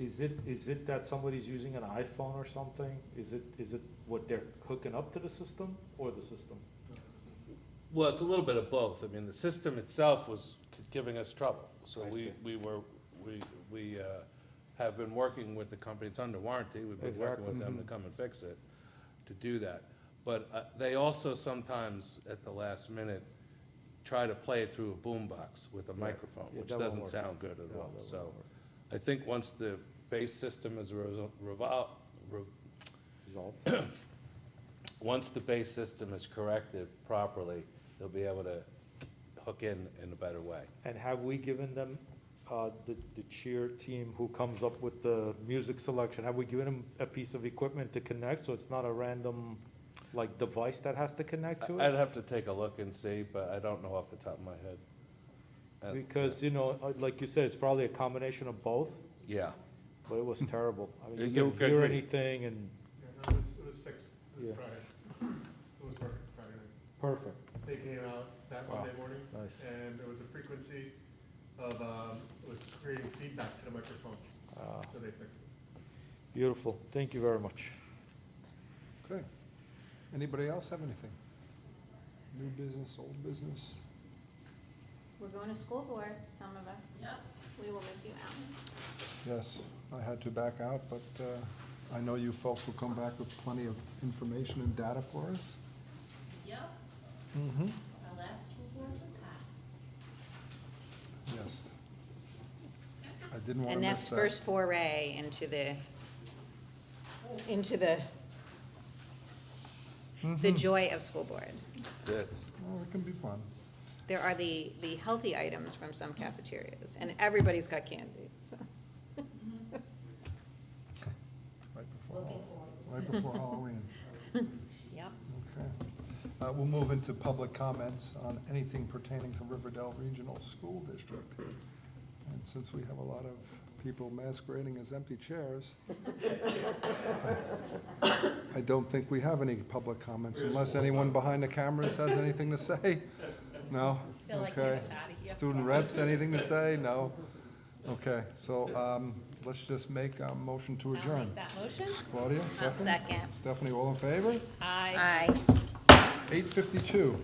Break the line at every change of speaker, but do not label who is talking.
Is it, is it that somebody's using an iPhone or something? Is it, is it what they're hooking up to the system or the system?
Well, it's a little bit of both. I mean, the system itself was c- giving us trouble. So
I
we,
see.
we were, we, we uh, have been working with the company, it's under warranty, we've been working with them to
Mm-hmm.
come and fix it, to do that. But uh, they also sometimes, at the last minute, try to play it through a boombox with a microphone,
Yeah,
which
that won't
doesn't
work.
sound good at
No,
all.
that
So
won't work.
I think once the base system is revo- revol, re-
Resolved?
once the base system is corrected properly, they'll be able to hook in in a better way.
And have we given them, uh, the, the cheer team who comes up with the music selection, have we given them a piece of equipment to connect, so it's not a random, like, device that has to connect to
I'd
it?
have to take a look and see, but I don't know off the top of my head. Uh,
Because, you know, uh, like you said, it's probably a combination of both,
Yeah,
but it was terrible. I mean,
You
you
could
couldn't hear
agree.
anything and,
Yeah, no, it was, it was fixed
Yeah.
this Friday. It was perfect Friday.
perfect,
They came out that
Wow.
Monday morning,
nice.
and there was a frequency of, um, it was creating feedback to the microphone,
Uh,
so they fixed it.
Beautiful, thank you very much.
Okay. Anybody else have anything? New business, old business?
We're going to school board, some of us. Yep. We will miss you, Alan.
Yes, I had to back out, but uh, I know you folks will come back with plenty of information and data for us.
Yep,
Mm-hmm.
our last two boards of that.
Yes. I didn't want to
And
miss
that's
that.
first foray into the, into the, the
Mm-hmm.
joy of school board.
that's it.
Well, it can be fun.
There are the, the healthy items from some cafeterias, and everybody's got candy, so.
Mm-hmm. Right before, Hall- right before Halloween.
Yep.
Okay. Uh, We'll move into public comments on anything pertaining to Riverdale Regional School District. And since we have a lot of people masquerading as empty chairs, I don't think we have any public comments unless anyone behind the cameras has anything to say. No?
Feel like
Okay.
getting us outta here.
Student reps, anything to say? No? Okay, so um, let's just make a motion to
I'll
adjourn.
make that motion.
Claudia, 2nd
second.
Stephanie, all in favor?
Aye.
Aye.
Eight fifty-two.